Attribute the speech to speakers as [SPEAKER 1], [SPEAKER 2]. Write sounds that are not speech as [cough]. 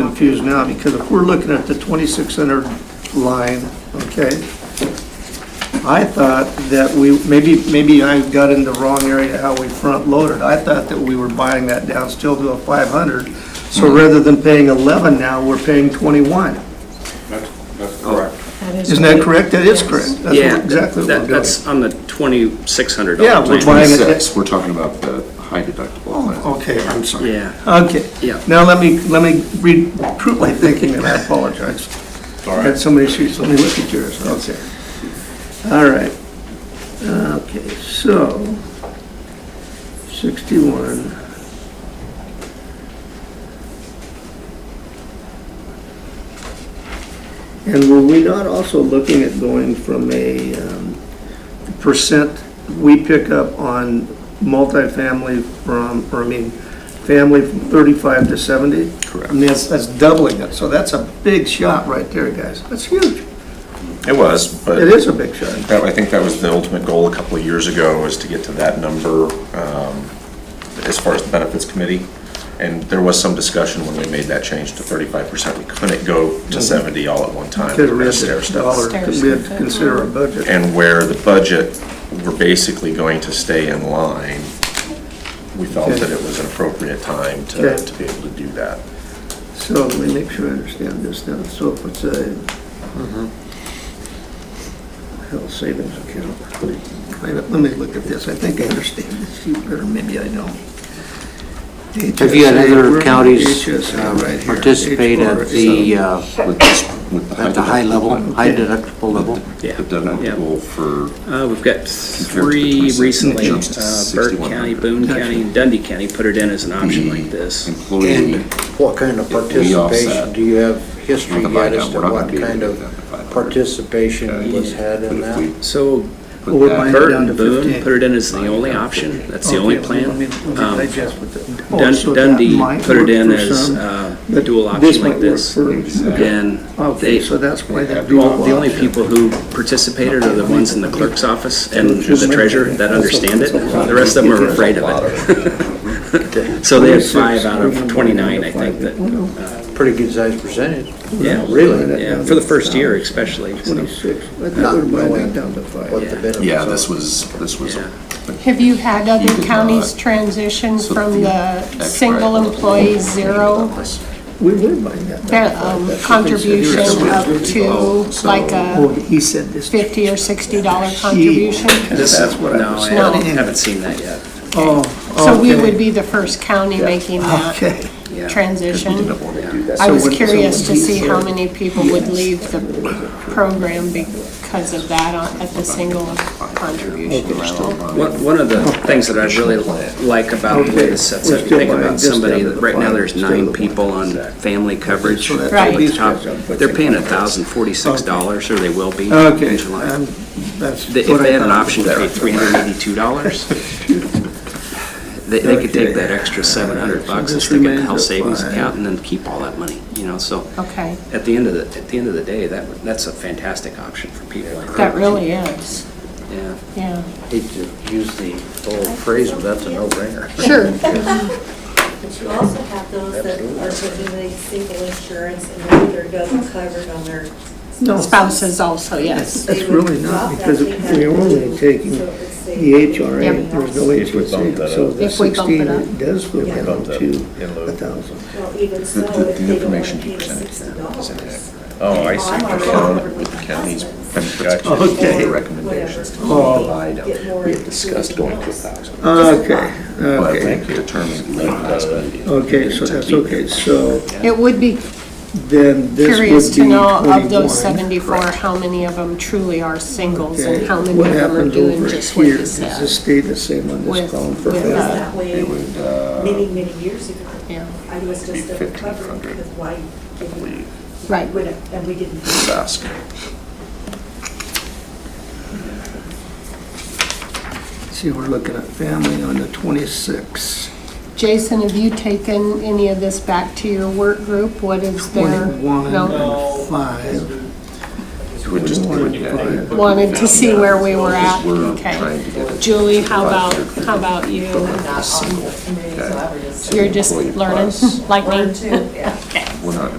[SPEAKER 1] confused now, because if we're looking at the 2,600 line, okay? I thought that we, maybe, maybe I got in the wrong area how we front loaded. I thought that we were buying that down still to a 500.
[SPEAKER 2] Mm-hmm.
[SPEAKER 1] So rather than paying 11 now, we're paying 21.
[SPEAKER 3] That's, that's
[SPEAKER 2] Oh,
[SPEAKER 3] correct.
[SPEAKER 1] Isn't that correct? That is correct. That's
[SPEAKER 2] Yeah,
[SPEAKER 1] what- exactly what
[SPEAKER 2] that-
[SPEAKER 1] we're doing.
[SPEAKER 2] that's on the twenty-six hundred
[SPEAKER 1] Yeah,
[SPEAKER 2] dollar
[SPEAKER 1] we're
[SPEAKER 2] plan.
[SPEAKER 1] buying it-
[SPEAKER 4] Twenty-six, we're talking about the high deductible. plan.
[SPEAKER 1] Oh, Okay, I'm sorry.
[SPEAKER 2] Yeah,
[SPEAKER 1] Okay.
[SPEAKER 2] Yeah.
[SPEAKER 1] Now let me, let me recruit my thinking, and I apologize.
[SPEAKER 3] All
[SPEAKER 1] I
[SPEAKER 3] right.
[SPEAKER 1] had so many sheets, let me look at yours, okay. All right. Okay, so, 61. And were we not also looking at going from a um, percent we pick up on multifamily from, or I mean, family from 35 to 70?
[SPEAKER 4] Correct.
[SPEAKER 1] I mean, that's, that's doubling it, so that's a big shot right there, guys. That's huge.
[SPEAKER 4] It was, but.
[SPEAKER 1] It is a big shot.
[SPEAKER 4] That, I think that was the ultimate goal a couple of years ago, was to get to that number um, as far as the benefits committee. And there was some discussion when we made that change to thirty-five percent. We couldn't go
[SPEAKER 1] Mm-hmm.
[SPEAKER 4] to seventy all at one time.
[SPEAKER 1] Because we had
[SPEAKER 4] Stair
[SPEAKER 1] to
[SPEAKER 4] step.
[SPEAKER 1] dollar, we had to consider our budget.
[SPEAKER 4] And where the budget, we're basically going to stay in line, we felt
[SPEAKER 1] Okay.
[SPEAKER 4] that it was an appropriate time to,
[SPEAKER 1] Okay.
[SPEAKER 4] to be able to do that.
[SPEAKER 1] So let me make sure I understand this now. So if it's a
[SPEAKER 5] Mm-hmm.
[SPEAKER 1] health savings account. Wait a minute, Let me look at this. I think I understand this sheet better, maybe I don't.
[SPEAKER 5] Have you had
[SPEAKER 1] HSA,
[SPEAKER 5] other counties
[SPEAKER 4] uh,
[SPEAKER 1] HSA
[SPEAKER 5] um,
[SPEAKER 1] right here,
[SPEAKER 5] participate at the, uh,
[SPEAKER 4] With this- with
[SPEAKER 5] at the high level, high
[SPEAKER 1] Okay.
[SPEAKER 5] deductible level?
[SPEAKER 2] yeah.
[SPEAKER 4] The deductible for
[SPEAKER 2] Uh, we've got three
[SPEAKER 4] 26,
[SPEAKER 2] recently,
[SPEAKER 4] jumps to
[SPEAKER 2] uh, Burke County,
[SPEAKER 4] 6100.
[SPEAKER 2] Boone County, and Dundee County put it in as an option like this.
[SPEAKER 4] employee. uh,
[SPEAKER 6] What kind of
[SPEAKER 4] We offset.
[SPEAKER 6] participation, do you have history
[SPEAKER 4] We're not
[SPEAKER 6] yet as
[SPEAKER 4] gonna do
[SPEAKER 6] to
[SPEAKER 4] that. We're not
[SPEAKER 6] what
[SPEAKER 4] gonna be able
[SPEAKER 6] kind
[SPEAKER 4] to do
[SPEAKER 6] of
[SPEAKER 4] that in the 500.
[SPEAKER 6] participation was had
[SPEAKER 4] But
[SPEAKER 6] in
[SPEAKER 4] if
[SPEAKER 6] that?
[SPEAKER 4] we
[SPEAKER 2] So
[SPEAKER 4] put
[SPEAKER 1] Well, we're
[SPEAKER 4] that-
[SPEAKER 1] buying-
[SPEAKER 2] Burke
[SPEAKER 1] down to
[SPEAKER 2] and Boone
[SPEAKER 1] 15.
[SPEAKER 2] put it in as the only option, that's the only plan. Um,
[SPEAKER 1] oh,
[SPEAKER 2] Dun- Dundee put it in as uh, a dual option like this. And
[SPEAKER 1] Okay,
[SPEAKER 2] they,
[SPEAKER 1] so that's why that
[SPEAKER 2] Well,
[SPEAKER 1] dual
[SPEAKER 2] the only
[SPEAKER 1] option.
[SPEAKER 2] people who participated are the ones in the clerk's office and the treasurer that understand it. The rest of them are afraid of it. [laughs] So they had five out of 29, I think, that,
[SPEAKER 6] Pretty good sized percentage.
[SPEAKER 2] yeah.
[SPEAKER 1] Really?
[SPEAKER 2] Yeah, for the first year especially. so.
[SPEAKER 1] Twenty-six, I think
[SPEAKER 6] Not
[SPEAKER 1] we're buying that
[SPEAKER 6] knowing
[SPEAKER 1] down to five.
[SPEAKER 6] What the benefits
[SPEAKER 4] Yeah,
[SPEAKER 6] are.
[SPEAKER 4] this was, this was,
[SPEAKER 2] Yeah.
[SPEAKER 7] Have you had other
[SPEAKER 4] did
[SPEAKER 7] counties
[SPEAKER 4] not.
[SPEAKER 7] transition
[SPEAKER 4] So
[SPEAKER 7] from
[SPEAKER 4] the
[SPEAKER 7] the
[SPEAKER 4] extra-
[SPEAKER 7] single employee zero
[SPEAKER 1] We were buying that.
[SPEAKER 7] be- um, contribution up to like
[SPEAKER 1] Oh,
[SPEAKER 7] a
[SPEAKER 1] he said this.
[SPEAKER 7] Uh, fifty or sixty dollar contribution?
[SPEAKER 2] This
[SPEAKER 1] That's
[SPEAKER 2] is,
[SPEAKER 1] what
[SPEAKER 2] no,
[SPEAKER 1] I
[SPEAKER 2] I
[SPEAKER 1] was
[SPEAKER 2] don't-
[SPEAKER 1] wanting.
[SPEAKER 2] haven't seen that yet.
[SPEAKER 1] Oh,
[SPEAKER 7] So we
[SPEAKER 1] okay.
[SPEAKER 7] would be the first county making that
[SPEAKER 1] Okay,
[SPEAKER 2] Yeah.
[SPEAKER 7] transition.
[SPEAKER 4] didn't want to do that.
[SPEAKER 7] I was
[SPEAKER 1] So when-
[SPEAKER 7] curious
[SPEAKER 1] so
[SPEAKER 7] to
[SPEAKER 1] when
[SPEAKER 7] see
[SPEAKER 1] he
[SPEAKER 7] how
[SPEAKER 1] said-
[SPEAKER 7] many people would leave the program because of that on- at the single contribution level.
[SPEAKER 2] One one of the things that I really like about the way this sets up, you think about somebody, that right now there's nine people on family coverage.
[SPEAKER 1] So that's
[SPEAKER 7] Right.
[SPEAKER 2] At the top, They're paying $1,046, or they will be
[SPEAKER 1] okay,
[SPEAKER 2] in July.
[SPEAKER 1] I'm- that's
[SPEAKER 2] They- If
[SPEAKER 1] what I
[SPEAKER 2] they had an
[SPEAKER 1] thought.
[SPEAKER 2] option to pay three hundred and
[SPEAKER 1] [laughs]
[SPEAKER 2] eighty-two dollars, they, they could take that extra seven hundred bucks and
[SPEAKER 1] This
[SPEAKER 2] stick it in the
[SPEAKER 1] remains
[SPEAKER 2] health
[SPEAKER 1] at
[SPEAKER 2] savings
[SPEAKER 1] five.
[SPEAKER 2] account and then keep all that money, you know, so.
[SPEAKER 7] Okay,
[SPEAKER 2] At the end of the, at the end of the day, that, would- that's a fantastic option for people like
[SPEAKER 7] that
[SPEAKER 2] that.
[SPEAKER 7] really is,
[SPEAKER 2] Yeah.
[SPEAKER 7] yeah.
[SPEAKER 6] Hate to use the old phrase, but that's a no brainer.
[SPEAKER 7] [laughs] Sure.
[SPEAKER 8] But you also have those that are taking the single insurance and then they're double covered on their.
[SPEAKER 1] No.
[SPEAKER 7] Spouses also, yes.
[SPEAKER 1] That's really not, because we're only taking the HRA,
[SPEAKER 7] Yep.
[SPEAKER 1] there's no HSA, so the
[SPEAKER 7] If we bump it
[SPEAKER 1] sixteen
[SPEAKER 7] up.
[SPEAKER 1] it does go
[SPEAKER 8] Yeah.
[SPEAKER 1] down to a thousand.
[SPEAKER 8] Well, even so,
[SPEAKER 4] The- the-
[SPEAKER 8] if
[SPEAKER 4] the
[SPEAKER 8] they don't want
[SPEAKER 4] information
[SPEAKER 8] to pay
[SPEAKER 4] you
[SPEAKER 8] the
[SPEAKER 4] presented
[SPEAKER 8] sixty
[SPEAKER 4] is
[SPEAKER 8] dollars.
[SPEAKER 4] inaccurate. Oh, I see. We're going with the county's benefits
[SPEAKER 1] Okay.
[SPEAKER 4] committee recommendations to provide. We had discussed going to a thousand.
[SPEAKER 1] Okay,
[SPEAKER 4] But
[SPEAKER 1] okay,
[SPEAKER 4] they determined the investment.
[SPEAKER 1] okay, so that's okay, so
[SPEAKER 7] It would be
[SPEAKER 1] then this would be
[SPEAKER 7] curious to know of those
[SPEAKER 1] 21.
[SPEAKER 7] 74, how many of them truly are singles and
[SPEAKER 1] Okay,
[SPEAKER 7] how many
[SPEAKER 1] what
[SPEAKER 7] of them are
[SPEAKER 1] happens
[SPEAKER 7] doing
[SPEAKER 1] over
[SPEAKER 7] just what
[SPEAKER 1] here?
[SPEAKER 7] you
[SPEAKER 1] Does
[SPEAKER 7] said.
[SPEAKER 1] this stay the same on this
[SPEAKER 7] With-
[SPEAKER 1] column for
[SPEAKER 7] with
[SPEAKER 1] family?
[SPEAKER 7] us.
[SPEAKER 8] That way,
[SPEAKER 4] They would, uh,
[SPEAKER 8] many, many years ago,
[SPEAKER 7] Yeah,
[SPEAKER 8] I was
[SPEAKER 4] Be
[SPEAKER 8] just double covered
[SPEAKER 4] 1,500.
[SPEAKER 8] because why, didn't we-
[SPEAKER 7] Right.
[SPEAKER 8] we didn't- and we didn't.
[SPEAKER 4] ask.
[SPEAKER 1] See, we're looking at family on the twenty-six.
[SPEAKER 7] Jason, have you taken any of this back to your work group? What is their?
[SPEAKER 1] Twenty-one
[SPEAKER 7] No,
[SPEAKER 1] and five.
[SPEAKER 4] It would just, it would, yeah,
[SPEAKER 7] Wanted to see where we were at?
[SPEAKER 4] we're trying
[SPEAKER 7] Okay.
[SPEAKER 4] to get it.
[SPEAKER 7] Julie, how about, how about you?
[SPEAKER 4] Single,
[SPEAKER 8] And then so I would just-
[SPEAKER 7] You're just
[SPEAKER 4] Employee
[SPEAKER 7] learning,
[SPEAKER 4] plus.
[SPEAKER 7] like
[SPEAKER 8] Learn
[SPEAKER 7] me? [laughs]
[SPEAKER 8] too, yeah.
[SPEAKER 4] we're not